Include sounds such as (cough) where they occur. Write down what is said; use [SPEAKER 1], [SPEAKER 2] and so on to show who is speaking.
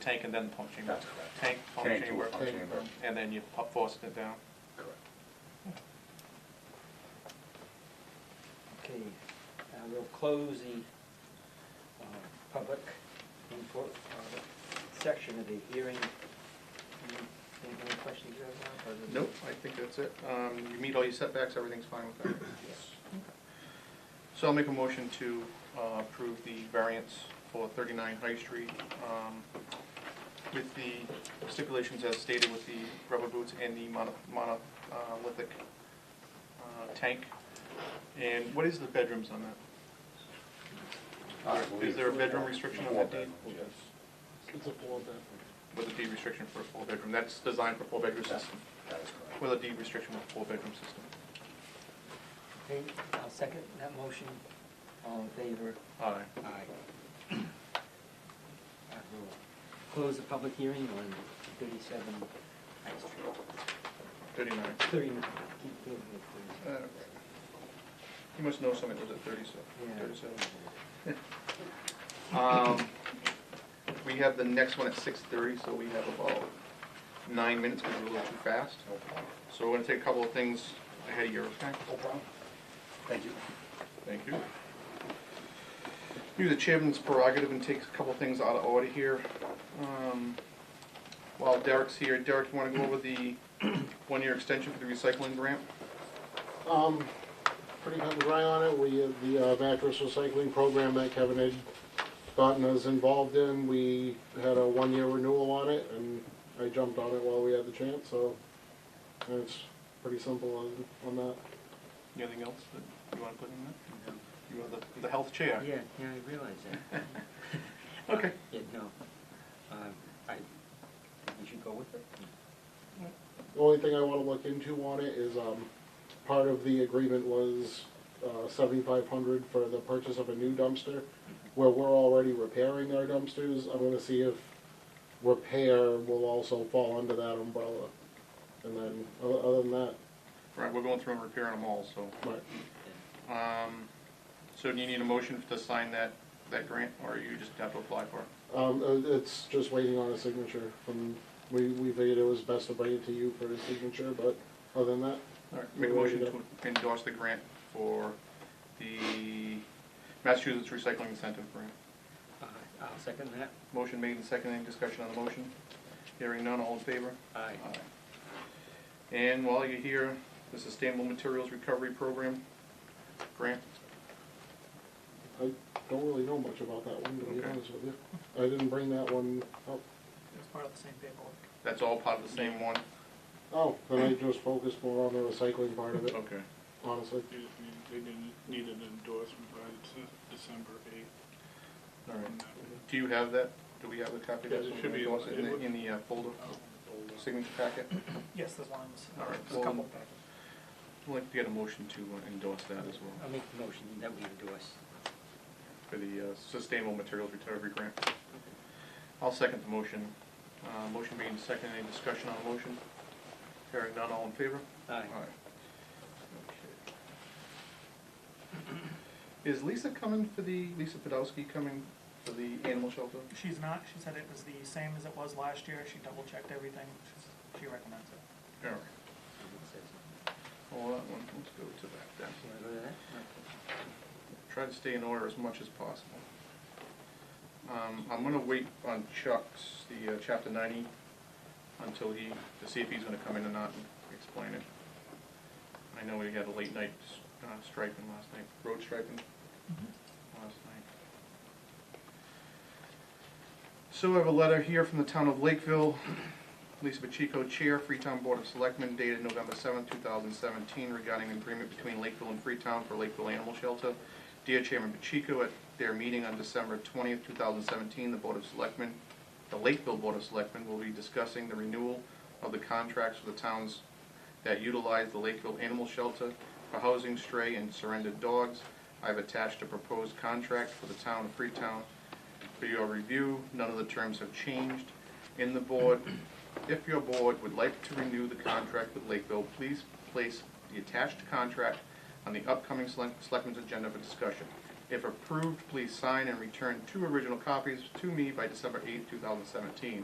[SPEAKER 1] tank and then the pump chamber.
[SPEAKER 2] That's correct.
[SPEAKER 1] Tank, pump
[SPEAKER 2] Tank to
[SPEAKER 1] chamber,
[SPEAKER 2] pump chamber.
[SPEAKER 1] and then you pu- force it down.
[SPEAKER 2] Correct.
[SPEAKER 3] Okay, now we'll close the uh, public input uh, section of the hearing. Any any questions you have? Bob, other than-
[SPEAKER 1] Nope, I think that's it. Um, You meet all your setbacks, everything's fine with that.
[SPEAKER 2] Yes.
[SPEAKER 1] So I'll make a motion to uh, approve the variance for 39 High Street um, with the stipulations as stated with the rubber boots and the mono- monolithic uh, tank. And what is the bedrooms on that?
[SPEAKER 2] I
[SPEAKER 1] Uh, Is
[SPEAKER 2] believe-
[SPEAKER 1] there a bedroom restriction on
[SPEAKER 2] Four
[SPEAKER 1] that deed?
[SPEAKER 2] bedrooms, Yes.
[SPEAKER 4] It's a four bedroom.
[SPEAKER 1] With a deed restriction for a four-bedroom? That's designed for four-bedroom system.
[SPEAKER 2] That is correct.
[SPEAKER 1] With a deed restriction for a four-bedroom system.
[SPEAKER 3] Okay, I'll second that motion. All in favor?
[SPEAKER 1] All right.
[SPEAKER 3] Aye. I will Close the public hearing on thirty-seven, High Street.
[SPEAKER 1] 39.
[SPEAKER 3] thirty-nine, keep doing it,
[SPEAKER 1] Uh, You must know somebody that lives at 37.
[SPEAKER 3] please.
[SPEAKER 1] 37.
[SPEAKER 3] Yeah.
[SPEAKER 1] Um, we have the next one at six thirty, so we have about nine minutes, because we're a little too fast.
[SPEAKER 2] No problem.
[SPEAKER 1] So we're gonna take a couple of things ahead of your, okay?
[SPEAKER 2] No problem. Thank you.
[SPEAKER 1] Thank you. Use the chairman's prerogative and take a couple of things out of order here. Um, While Derek's here, Derek, you wanna go over the (clears throat) one-year extension for the recycling grant?
[SPEAKER 4] Um, pretty cut and dry on it, we, uh, the uh, mattress recycling program that Kevin had gotten us involved in, we had a one-year renewal on it, and I jumped on it while we had the chance, so and it's pretty simple on, on that.
[SPEAKER 1] Anything else that you wanna put in there? You are the, the health chair.
[SPEAKER 3] Yeah, yeah, I realize that.
[SPEAKER 1] Okay.
[SPEAKER 3] Yeah, no, um, I, we should go with it.
[SPEAKER 4] The only thing I wanna look into on it is, um, part of the agreement was, uh, seventy-five hundred for the purchase of a new dumpster, where we're already repairing our dumpsters, I'm gonna see if repair will also fall under that umbrella. And then, o- other than that,
[SPEAKER 1] Right, we're going through and repairing them all, so.
[SPEAKER 4] but
[SPEAKER 1] Um, so do you need a motion to sign that, that grant, or you just have to apply for it?
[SPEAKER 4] Um, uh, it's just waiting on a signature from, we, we figured it was best to bring it to you for a signature, but other than that,
[SPEAKER 1] All right, make a
[SPEAKER 4] We're ready
[SPEAKER 1] motion
[SPEAKER 4] to
[SPEAKER 1] to endorse the grant for the Massachusetts Recycling Incentive Grant.
[SPEAKER 3] Uh, I'll second that.
[SPEAKER 1] Motion made and seconded, any discussion on the motion? Hearing none, all in favor?
[SPEAKER 3] Aye.
[SPEAKER 1] Aye. And while you're here, the Sustainable Materials Recovery Program grant,
[SPEAKER 4] I don't really know much about that one, to be
[SPEAKER 1] Okay.
[SPEAKER 4] honest with you. I didn't bring that one up.
[SPEAKER 5] It's part of the same paperwork.
[SPEAKER 1] that's all part of the same one?
[SPEAKER 4] Oh, then I just focused more on the recycling part of it,
[SPEAKER 1] Okay.
[SPEAKER 4] honestly.
[SPEAKER 6] They just need, Mm-hmm. they didn't need an endorsement by Dece- December eighth.
[SPEAKER 1] All right. Do you have that? Do we have the copy? of that?
[SPEAKER 6] Yeah, it should be-
[SPEAKER 1] Endorse it In the, in the uh, folder, signature packet?
[SPEAKER 5] Yes, there's one, in this-
[SPEAKER 1] All right,
[SPEAKER 5] there's a couple
[SPEAKER 1] well-
[SPEAKER 5] packets.
[SPEAKER 1] I'd like to get a motion to uh, endorse that as well,
[SPEAKER 3] I'll make the motion that we endorse.
[SPEAKER 1] for the uh, Sustainable Materials Recovery Grant. I'll second the motion. Uh, Motion being second, any discussion on the motion? Hearing none, all in favor?
[SPEAKER 3] Aye.
[SPEAKER 1] Okay. Is Lisa coming for the, Lisa Podolsky coming for the animal shelter?
[SPEAKER 5] She's not, she said it was the same as it was last year, she double checked everything, She's- she recommends it.
[SPEAKER 1] All right,
[SPEAKER 3] Someone says-
[SPEAKER 1] hold on, one- let's go to that then.
[SPEAKER 3] you wanna go to that?
[SPEAKER 1] Try to stay in order as much as possible. Um, I'm gonna wait on Chuck's, the uh, chapter ninety, until he, to see if he's gonna come in or not and explain it. I know we had a late night s- uh, striping last night, road striping last night. So I have a letter here from the town of Lakeville, Lisa Pacheco, Chair, Freetown Board of Selectmen, dated November seventh, two thousand seventeen, regarding an agreement between Lakeville and Freetown for Lakeville Animal Shelter. Dear Chairman Pacheco, at their meeting on December twentieth, two thousand seventeen, the Board of Selectmen, the Lakeville Board of Selectmen will be discussing the renewal of the contracts for the towns that utilize the Lakeville Animal Shelter for housing stray and surrendered dogs. I've attached a proposed contract for the town of Freetown for your review. None of the terms have changed in the board. If your board would like to renew the contract with Lakeville, please place the attached contract on the upcoming select- selectmen's agenda for discussion. If approved, please sign and return two original copies to me by December eighth, two thousand seventeen.